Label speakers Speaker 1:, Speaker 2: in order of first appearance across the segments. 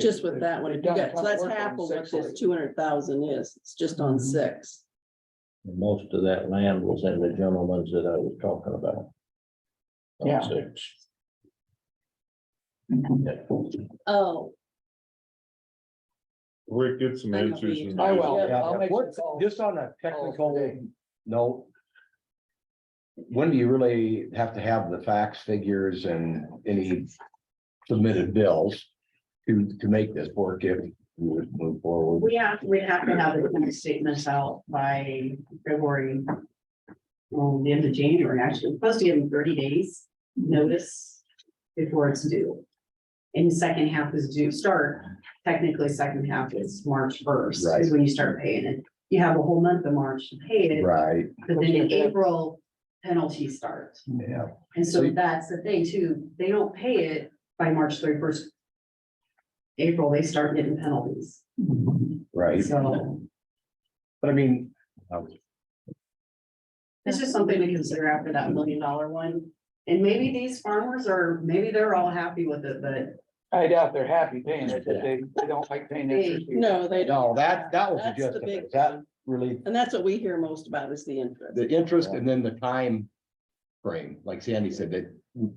Speaker 1: Just with that one,
Speaker 2: They've
Speaker 1: you
Speaker 2: done a
Speaker 1: got, so
Speaker 2: ton of
Speaker 1: that's
Speaker 2: work on
Speaker 1: half of what
Speaker 2: six
Speaker 1: this
Speaker 2: already.
Speaker 1: two hundred thousand is, it's just on
Speaker 3: Mm-hmm.
Speaker 2: Mhm.
Speaker 1: six.
Speaker 4: Most of that land was in the gentleman's that I was talking about.
Speaker 2: Yeah.
Speaker 4: Six.
Speaker 1: Oh,
Speaker 5: Rick, get some
Speaker 1: I know
Speaker 5: answers.
Speaker 1: you-
Speaker 5: and-
Speaker 2: I will.
Speaker 1: Yeah,
Speaker 2: I'll make some
Speaker 3: What,
Speaker 2: calls.
Speaker 3: just on a
Speaker 2: today.
Speaker 3: technical note. When do you really have to have the facts, figures and any submitted bills to, to make this work if you would move forward?
Speaker 6: We have, we have to have the kind of statements out by February. Well, the end of January, actually, We're supposed to give them thirty days notice before it's due. And the second half is due, start technically second half is March first,
Speaker 3: Right.
Speaker 6: is when you start paying it. You have a whole month of March to pay it,
Speaker 3: Right,
Speaker 6: but then in April penalties start.
Speaker 3: yeah,
Speaker 6: And
Speaker 3: So
Speaker 6: so
Speaker 3: you-
Speaker 6: that's the thing too, they don't pay it by March thirty first. April, they start getting penalties,
Speaker 3: right.
Speaker 6: so.
Speaker 3: But I mean,
Speaker 6: It's just something to consider after that million dollar one. And maybe these farmers are, maybe they're all happy with it, but
Speaker 2: I doubt they're happy paying it, but they, they don't like paying interest. either.
Speaker 1: no, they don't,
Speaker 3: no, that, that was
Speaker 1: That's
Speaker 3: just,
Speaker 1: the big
Speaker 3: that
Speaker 1: one.
Speaker 3: really,
Speaker 1: and that's what we hear most about is the interest.
Speaker 3: the interest and then the time frame, like Sandy said, that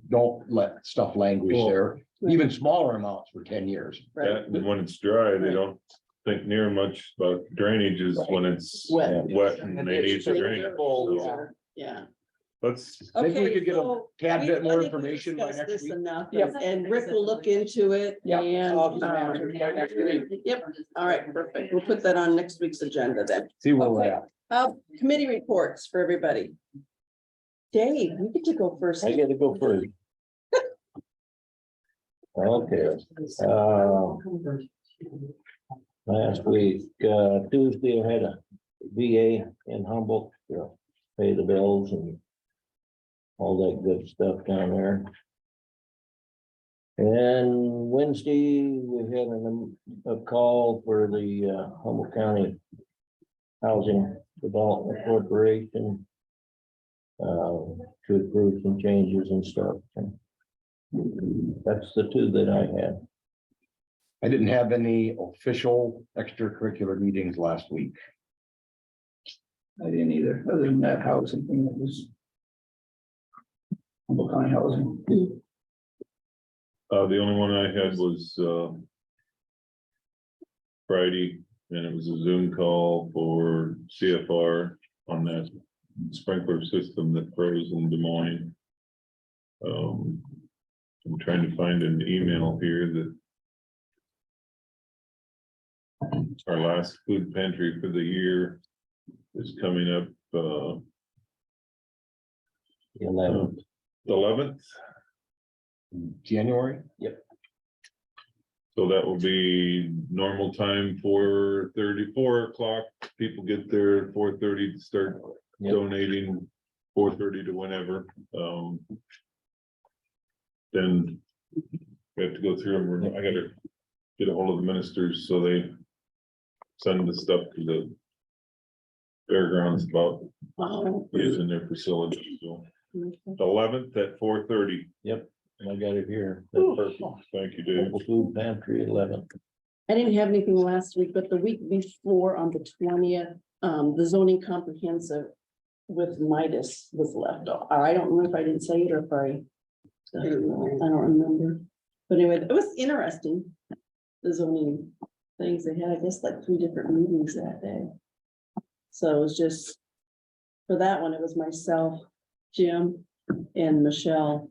Speaker 3: don't let stuff languish
Speaker 5: Well-
Speaker 3: there. Even smaller amounts for ten years.
Speaker 1: Right,
Speaker 5: That, and when it's dry, they
Speaker 1: Right.
Speaker 5: don't think near much about drainage is when it's
Speaker 1: Wet.
Speaker 5: wet and they need to drain. it.
Speaker 2: Full, yeah.
Speaker 5: So
Speaker 1: Yeah.
Speaker 5: Let's,
Speaker 3: Maybe we
Speaker 1: Okay,
Speaker 3: could get a
Speaker 1: so
Speaker 3: Tad
Speaker 1: we-
Speaker 3: bit
Speaker 1: I
Speaker 3: more
Speaker 1: think we
Speaker 3: information by
Speaker 1: discussed
Speaker 3: next
Speaker 1: this
Speaker 3: week.
Speaker 1: Enough,
Speaker 2: Yep.
Speaker 1: and Rick will look into it
Speaker 2: Yep.
Speaker 1: and,
Speaker 2: I'll just
Speaker 1: um,
Speaker 2: answer it by next week.
Speaker 1: yep, all right, perfect. We'll put that on next week's agenda then.
Speaker 3: See where we're
Speaker 1: Okay.
Speaker 3: at.
Speaker 1: Uh, committee reports for everybody. Dave, you get to go first.
Speaker 4: I gotta go first. Okay, uh, last week, uh, Tuesday, I had a VA in Humboldt, you know, pay the bills and all that good stuff down there. And Wednesday, we had an, um, a call for the uh, Humboldt County Housing Development Corporation uh, to approve some changes and stuff. And That's the two that I had.
Speaker 3: I didn't have any official extracurricular meetings last week.
Speaker 2: I didn't either, other than that housing thing that was. Humboldt County housing.
Speaker 5: uh, the only one I had was, um. Friday, and it was a Zoom call for CFR on that sprinkler system that froze in Des Moines. Um, I'm trying to find an email here that. Our last food pantry for the year is coming up, uh,
Speaker 4: Eleven.
Speaker 5: eleventh.
Speaker 3: January,
Speaker 5: So that will be normal time, four thirty, four o'clock, people get there, four thirty, start
Speaker 4: Yep.
Speaker 5: donating, four thirty to whenever, um. Then we have to go through, and we're- I gotta get a hold of the ministers, so they send the stuff to the fairgrounds about
Speaker 1: Oh,
Speaker 5: using their facility, so
Speaker 1: okay.
Speaker 5: eleventh at four thirty,
Speaker 4: And I got it here. That's perfect.
Speaker 5: thank you, Dave.
Speaker 4: Local Food pantry eleven.
Speaker 1: I didn't have anything last week, but the week before on the twentieth, um, the zoning comprehensive with Midas was left off. I don't know if I didn't say it or if I. I don't know. I don't remember. But anyway, it was interesting. The zoning things they had, I guess, like three different meetings that day. So it was just. For that one, it was myself, Jim and Michelle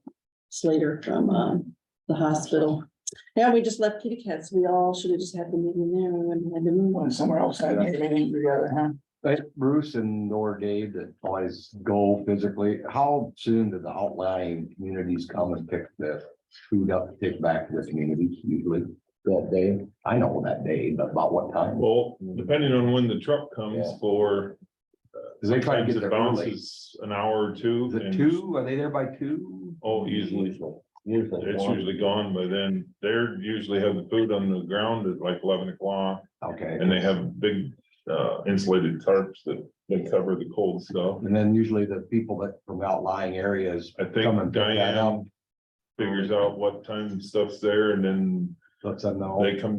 Speaker 1: Slater from, um, the hospital. Yeah, we just left kitty cats. We all should have just had the meeting there. We wouldn't have had to move
Speaker 2: Went
Speaker 1: on.
Speaker 2: somewhere else, had a meeting together, huh?
Speaker 3: That's Bruce and or Dave that always go physically. How soon do the outlying communities come and pick the food up, take back to the community usually that day? I know that day, but about what time?
Speaker 5: Well, depending on when the truck comes
Speaker 3: Yeah.
Speaker 5: for.
Speaker 3: Because they try to
Speaker 5: Sometimes
Speaker 3: get
Speaker 5: it
Speaker 3: there early.
Speaker 5: bounces an hour or two.
Speaker 3: Is it
Speaker 5: and
Speaker 3: two? Are they there by two?
Speaker 5: Oh, easily.
Speaker 4: Usually.
Speaker 5: It's
Speaker 4: one.
Speaker 5: usually gone by then. They're usually have the food on the ground at like eleven o'clock
Speaker 3: Okay.
Speaker 5: and they have big uh insulated tarps that they cover the cold stuff.
Speaker 3: And then usually the people that from outlying areas
Speaker 5: I
Speaker 3: come and
Speaker 5: think
Speaker 3: pick that
Speaker 5: Diane
Speaker 3: up.
Speaker 5: figures out what time stuff's there and then
Speaker 3: Let's them know.
Speaker 5: they come down